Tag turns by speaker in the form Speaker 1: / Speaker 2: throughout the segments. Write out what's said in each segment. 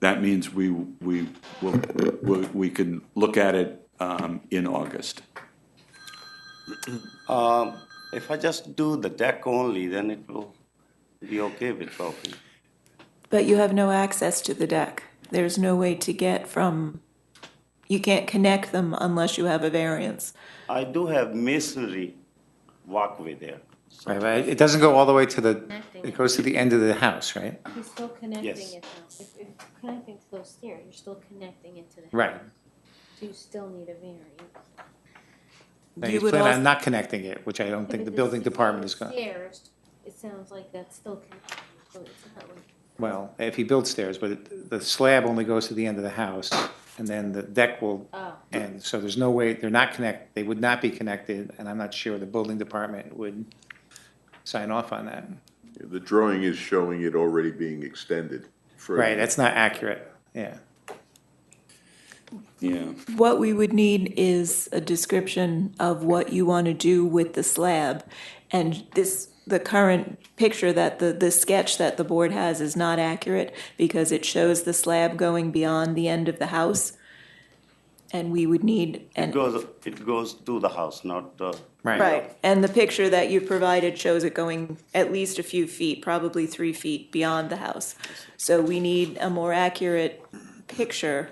Speaker 1: That means we we will we we can look at it um, in August.
Speaker 2: If I just do the deck only, then it will be okay with Rocky.
Speaker 3: But you have no access to the deck. There's no way to get from, you can't connect them unless you have a variance.
Speaker 2: I do have masonry walkway there.
Speaker 4: Right, right. It doesn't go all the way to the, it goes to the end of the house, right?
Speaker 5: You're still
Speaker 2: Yes.
Speaker 5: connecting it now. If if you're connecting to those stairs, you're still connecting it to the house.
Speaker 4: Right.
Speaker 5: So you still need a variance.
Speaker 4: Now,
Speaker 3: You
Speaker 4: he's
Speaker 3: would
Speaker 4: planning
Speaker 3: als-
Speaker 4: on not connecting it, which I don't think the building department is going, to
Speaker 5: Stairs, it sounds like that's still connected, so it's not like.
Speaker 4: well, if he builds stairs, but it- the slab only goes to the end of the house, and then the deck will
Speaker 5: Oh.
Speaker 4: end. So there's no way, they're not connect, they would not be connected, and I'm not sure the building department would sign off on that.
Speaker 6: The drawing is showing it already being extended. further.
Speaker 4: Right, that's not accurate, yeah.
Speaker 1: Yeah.
Speaker 3: What we would need is a description of what you want to do with the slab. And this, the current picture that the, the sketch that the board has is not accurate because it shows the slab going beyond the end of the house. And we would need
Speaker 2: It
Speaker 3: an
Speaker 2: goes, it goes to the house, not uh, the.
Speaker 3: Right, and the picture that you provided shows it going at least a few feet, probably three feet beyond the house. So we need a more accurate picture,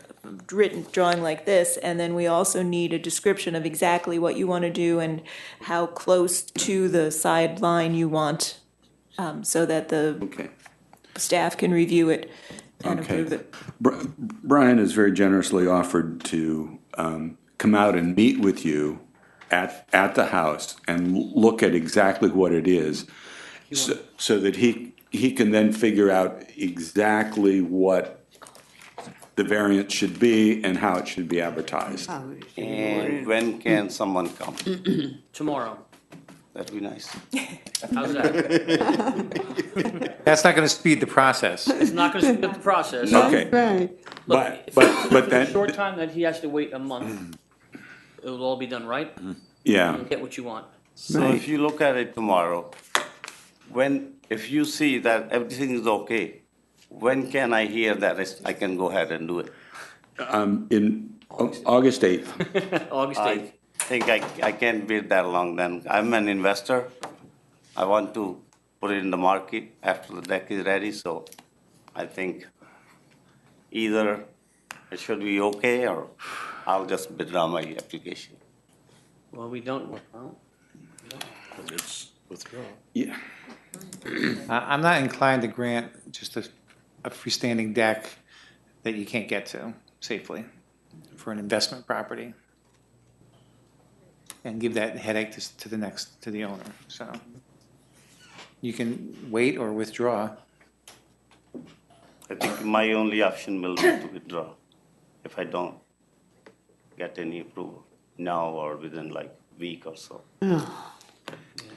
Speaker 3: written, drawing like this, and then we also need a description of exactly what you want to do and how close to the sideline you want, um, so that the
Speaker 1: Okay.
Speaker 3: staff can review it and
Speaker 1: Okay.
Speaker 3: approve it.
Speaker 1: Br- Brian has very generously offered to um, come out and meet with you at at the house and l- look at exactly what it is, so, so that he he can then figure out exactly what the variant should be and how it should be advertised.
Speaker 2: And when can someone come?
Speaker 7: Tomorrow.
Speaker 2: That'd be nice.
Speaker 7: How's that?
Speaker 4: That's not going to speed the process.
Speaker 7: It's not gonna speed up the process. Um,
Speaker 1: Okay. But but but
Speaker 7: The Short
Speaker 1: then
Speaker 7: time that he has to wait a month, it'll all be done right.
Speaker 1: yeah.
Speaker 7: You'll get what you want.
Speaker 2: So if you look at it tomorrow, when, if you see that everything is okay, when can I hear that is- I can go ahead and do it?
Speaker 1: in Au- August 8th.
Speaker 7: August
Speaker 2: I
Speaker 7: eighth.
Speaker 2: think I, I can't wait that long then. I'm an investor. I want to put it in the market after the deck is ready, so I think either it should be okay or I'll just withdraw my application.
Speaker 7: Well, we don't, well,
Speaker 1: Yeah.
Speaker 4: I- I'm not inclined to grant just a a freestanding deck that you can't get to safely for an investment property. And give that headache to s- to the next, to the owner, so. You can wait or withdraw.
Speaker 2: I think my only option will be to withdraw if I don't get any approval now or within like week or so.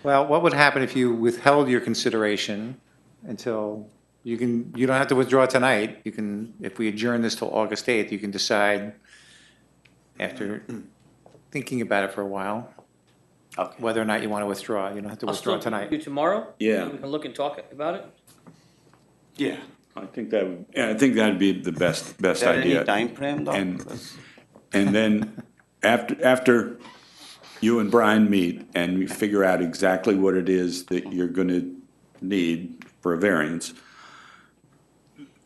Speaker 4: Well, what would happen if you withheld your consideration until, you can, you don't have to withdraw tonight. You can, if we adjourn this till August 8th, you can decide after thinking about it for a while.
Speaker 2: Okay.
Speaker 4: whether or not you want to withdraw. You don't have to
Speaker 7: I'll
Speaker 4: withdraw
Speaker 7: still do
Speaker 4: tonight.
Speaker 7: tomorrow.
Speaker 1: Yeah.
Speaker 7: We can look and talk about it.
Speaker 2: Yeah.
Speaker 1: I think that, would- yeah, I think that'd be the best,
Speaker 2: Is
Speaker 1: best
Speaker 2: there any
Speaker 1: idea.
Speaker 2: time frame though?
Speaker 1: And, and then after, after you and Brian meet and you figure out exactly what it is that you're gonna need for a variance,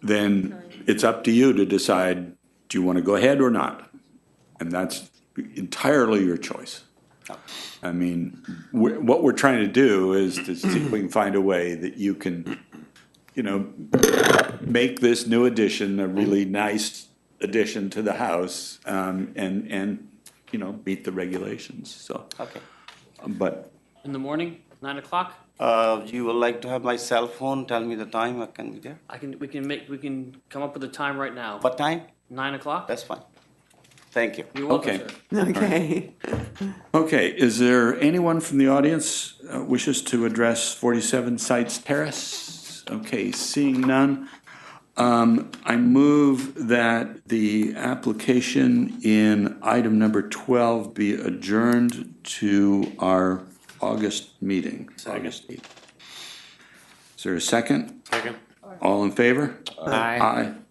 Speaker 1: then it's up to you to decide, do you wanna go ahead or not? And that's entirely your choice. I mean, we what we're trying to do is to see if we can find a way that you can, you know, make this new addition a really nice addition to the house, um, and, and, you know, meet the regulations, so.
Speaker 2: Okay.
Speaker 1: But,
Speaker 7: In the morning, nine o'clock.
Speaker 2: Uh, you would like to have my cell phone? Tell me the time. I can be there.
Speaker 7: I can, we can make, we can come up with a time right now.
Speaker 2: What time?
Speaker 7: Nine o'clock?
Speaker 2: That's fine. Thank you.
Speaker 7: You're welcome,
Speaker 1: Okay.
Speaker 7: sir.
Speaker 8: Okay.
Speaker 1: okay, is there anyone from the audience uh, wishes to address forty-seven Sites Terrace? Okay, seeing none, um, I move that the application in item number twelve be adjourned to our August meeting, August eighth. Is there a second? Second. All in favor?
Speaker 4: Aye.
Speaker 1: Aye.